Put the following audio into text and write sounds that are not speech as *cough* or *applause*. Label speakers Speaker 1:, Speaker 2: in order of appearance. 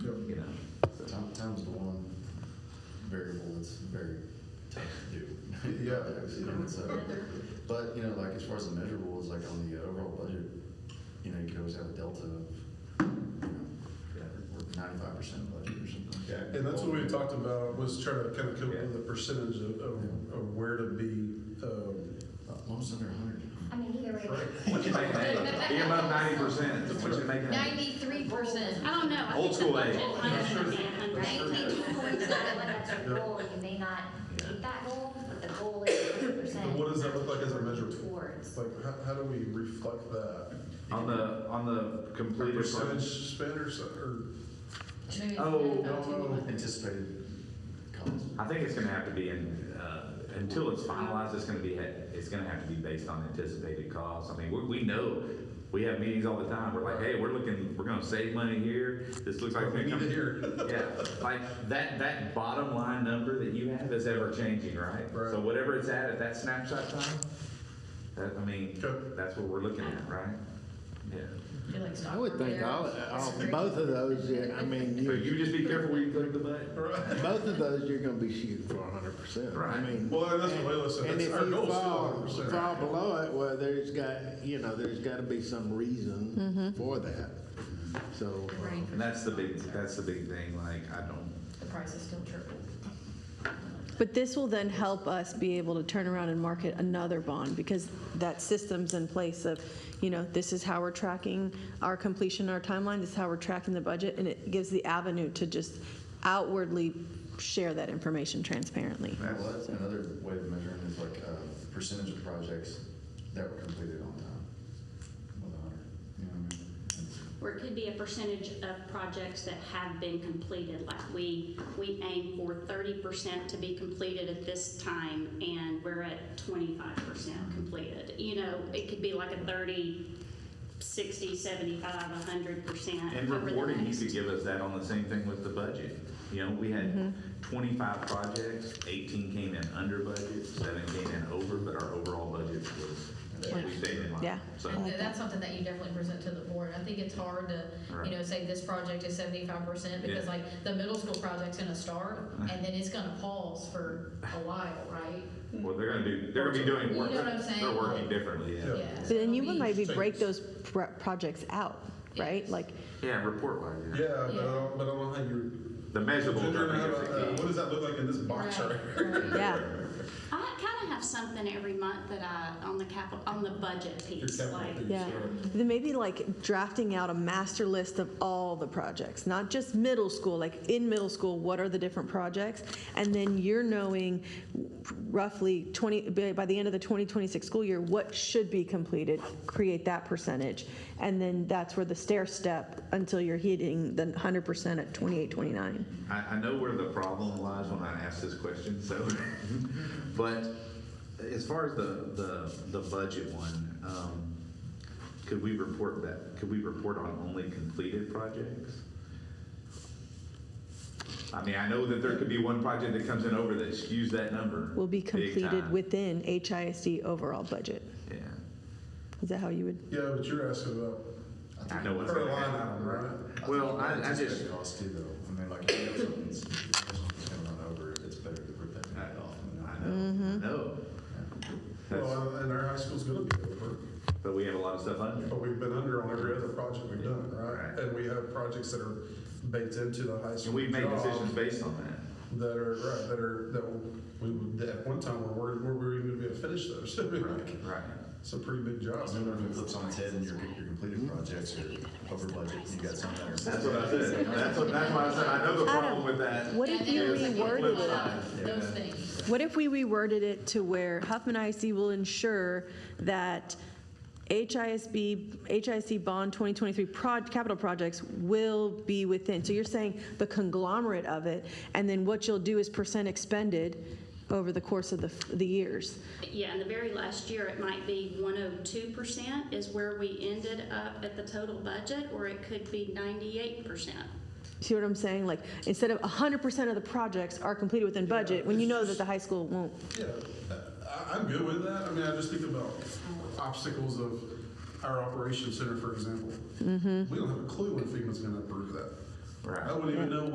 Speaker 1: Town's the one variable that's very tough to do. *laughs*
Speaker 2: Yeah.
Speaker 1: You know, it's, uh, But, you know, like as far as the measurable is like on the overall budget, you know, you could always have a delta of, you know, ninety-five percent budget or something.
Speaker 2: Yeah, and that's what we talked about, was trying to kind of come up with a percentage of, of, of where to be, um,
Speaker 1: As long as it's Uh, under hundred.
Speaker 3: I mean, either way.
Speaker 4: What you making? Be above ninety percent. What you making?
Speaker 5: Ninety-three percent. I don't know. I
Speaker 4: Old
Speaker 5: think
Speaker 4: school
Speaker 5: the
Speaker 4: age.
Speaker 5: budget higher than
Speaker 3: Nineteen
Speaker 5: 100.
Speaker 3: point seven, that's your goal, you may not meet that goal, but the goal is hundred percent.
Speaker 2: And what does that look like as a measurement?
Speaker 3: Towards.
Speaker 2: like, how, how do we reflect that?
Speaker 4: On the, on the
Speaker 2: A
Speaker 4: completed.
Speaker 2: Percentage spend or, so- or,
Speaker 5: Maybe it's
Speaker 4: Oh,
Speaker 5: 9,000.
Speaker 1: Anticipated cost.
Speaker 4: I think it's gonna have to be in, uh, until it's finalized, it's gonna be, it's gonna have to be based on anticipated costs. I mean, we, we know, we have meetings all the time, we're like, hey, we're looking, we're gonna save money here, this looks like.
Speaker 2: we need to hear.
Speaker 4: *laughs* Yeah, like, that, that bottom line number that you have is ever changing, right?
Speaker 2: Right.
Speaker 4: So whatever it's at, at that snapshot time, that, I mean,
Speaker 2: Okay.
Speaker 4: that's what we're looking at, right? Yeah.
Speaker 5: Feel like
Speaker 6: I would think
Speaker 5: Stockford
Speaker 6: all,
Speaker 5: there.
Speaker 6: all, both of those, yeah, I mean,
Speaker 4: So
Speaker 6: you,
Speaker 4: you just be careful where you click the button.
Speaker 6: both of those, you're gonna be shooting for hundred percent.
Speaker 4: Right.
Speaker 6: I mean.
Speaker 2: Well, and that's what Layla said,
Speaker 6: And
Speaker 2: that's
Speaker 6: if
Speaker 2: our
Speaker 6: you
Speaker 2: goal,
Speaker 6: fall,
Speaker 2: still 100%.
Speaker 6: fall below it, well, there's got, you know, there's gotta be some reason for that. So,
Speaker 5: The rain for
Speaker 4: And that's the big,
Speaker 5: Stockford.
Speaker 4: that's the big thing, like, I don't,
Speaker 5: The price is still triple.
Speaker 7: But this will then help us be able to turn around and market another bond because that system's in place of, you know, this is how we're tracking our completion, our timeline, this is how we're tracking the budget, and it gives the avenue to just outwardly share that information transparently.
Speaker 1: Well, that's another way of measuring is like uh, percentage of projects that were completed on time. With a hundred, you know what I mean? It's-
Speaker 8: Or it could be a percentage of projects that have been completed, like we, we aim for thirty percent to be completed at this time, and we're at twenty-five percent completed. You know, it could be like a 30, 60, 75, hundred percent.
Speaker 4: And reporting, you could give us that on the same thing with the budget. You know, we had
Speaker 5: Mm-hmm.
Speaker 4: 25 projects, 18 came in under budget, seven came in over, but our overall budget was, we stayed in line.
Speaker 7: Yeah.
Speaker 4: So,
Speaker 5: And th- that's something that you definitely present to the board. I think it's hard to,
Speaker 4: Right.
Speaker 5: you know, say this project is seventy-five percent because
Speaker 4: Yeah.
Speaker 5: like the middle school project's gonna
Speaker 4: *laughs*
Speaker 5: start and then it's gonna pause for a while, right?
Speaker 4: well, they're gonna do, they're gonna be doing
Speaker 5: You
Speaker 4: work,
Speaker 5: know what I'm saying?
Speaker 4: they're working differently, yeah.
Speaker 5: Yeah.
Speaker 7: But
Speaker 5: so
Speaker 7: then
Speaker 5: it'll
Speaker 7: you
Speaker 5: be-
Speaker 7: would maybe break
Speaker 2: Change.
Speaker 7: those pro- projects out, right?
Speaker 5: Yes.
Speaker 7: Like,
Speaker 4: Yeah, report wise, yeah.
Speaker 2: Yeah, but I don't, but I don't know how you,
Speaker 4: The measurable.
Speaker 2: Ginger,
Speaker 4: I
Speaker 2: how
Speaker 4: think, is
Speaker 2: about uh,
Speaker 4: the
Speaker 2: that?
Speaker 4: key.
Speaker 2: what does that look like in this box
Speaker 5: Right,
Speaker 2: right here?
Speaker 4: *laughs*
Speaker 5: right.
Speaker 7: yeah,
Speaker 8: I kind of have something every month that I, on the capital, on the budget piece,
Speaker 2: capital
Speaker 8: like,
Speaker 2: piece.
Speaker 7: yeah.
Speaker 2: Sure.
Speaker 7: Then maybe like drafting out a master list of all the projects, not just middle school, like in middle school, what are the different projects? And then you're knowing roughly 20, by by the end of the 2026 school year, what should be completed, create that percentage. And then that's where the stair step until you're hitting the 100% at 28, 29.
Speaker 4: I, I know where the problem lies when I ask this question, so, but as far as the, the, the budget one, um, could we report that, could we report on only completed projects? I mean, I know that there could be one project that comes in over that skews that number.
Speaker 7: will be
Speaker 4: big
Speaker 7: completed
Speaker 4: time.
Speaker 7: within HISD overall budget.
Speaker 4: Yeah,
Speaker 7: Is that how you would?
Speaker 2: Yeah, but you're asking about
Speaker 4: I know what's
Speaker 2: per
Speaker 4: gonna
Speaker 2: line
Speaker 4: happen.
Speaker 2: item, right?
Speaker 4: Well, I, I
Speaker 1: Anticipated
Speaker 4: just,
Speaker 1: Cost too, though. I mean, like, if you know something's, if something's gonna run over, it's better to rip that
Speaker 4: I
Speaker 1: back off. you know?
Speaker 4: I know, I know. That's-
Speaker 2: Well, and our high school's gonna be over,
Speaker 4: But we have a lot of stuff under.
Speaker 2: but we've been under on every other project we've done, right?
Speaker 4: Right.
Speaker 2: And we have projects that are baked into the high school
Speaker 4: And we've made
Speaker 2: job
Speaker 4: decisions based on that.
Speaker 2: That are, right, that are, that we, would- that at one time, we're worried, where we were even gonna be able to finish those. *laughs* I mean, like,
Speaker 4: Right.
Speaker 2: It's a pretty big job. Mm-hmm.
Speaker 1: Because then when it flips on its head and your, your completed projects are over budget, you got something that are.
Speaker 4: That's what I said. That's what, that's why I said, I know the problem
Speaker 7: Adam,
Speaker 4: with that.
Speaker 7: What if
Speaker 5: And then
Speaker 7: you
Speaker 5: it was like,
Speaker 7: reworded
Speaker 5: well,
Speaker 7: it?
Speaker 4: it?
Speaker 5: Those things.
Speaker 7: What if we reworded it to where Huffman IC will ensure that HISB, HIC Bond 2023 proj, capital projects will be within? So you're saying the conglomerate of it, and then what you'll do is percent expended over the course of the, f- the years.
Speaker 8: Yeah, and the very last year, it might be one oh two percent is where we ended up at the total budget, or it could be ninety-eight percent.
Speaker 7: See what I'm saying? Like, instead of 100% of the projects are completed within budget, when you know that the high school won't.
Speaker 2: Yeah, I, I'm good with that. I mean, I just think about obstacles of our operations center, for example. We don't have a clue when FEMA's gonna approve that.
Speaker 4: Right.
Speaker 2: I wouldn't even know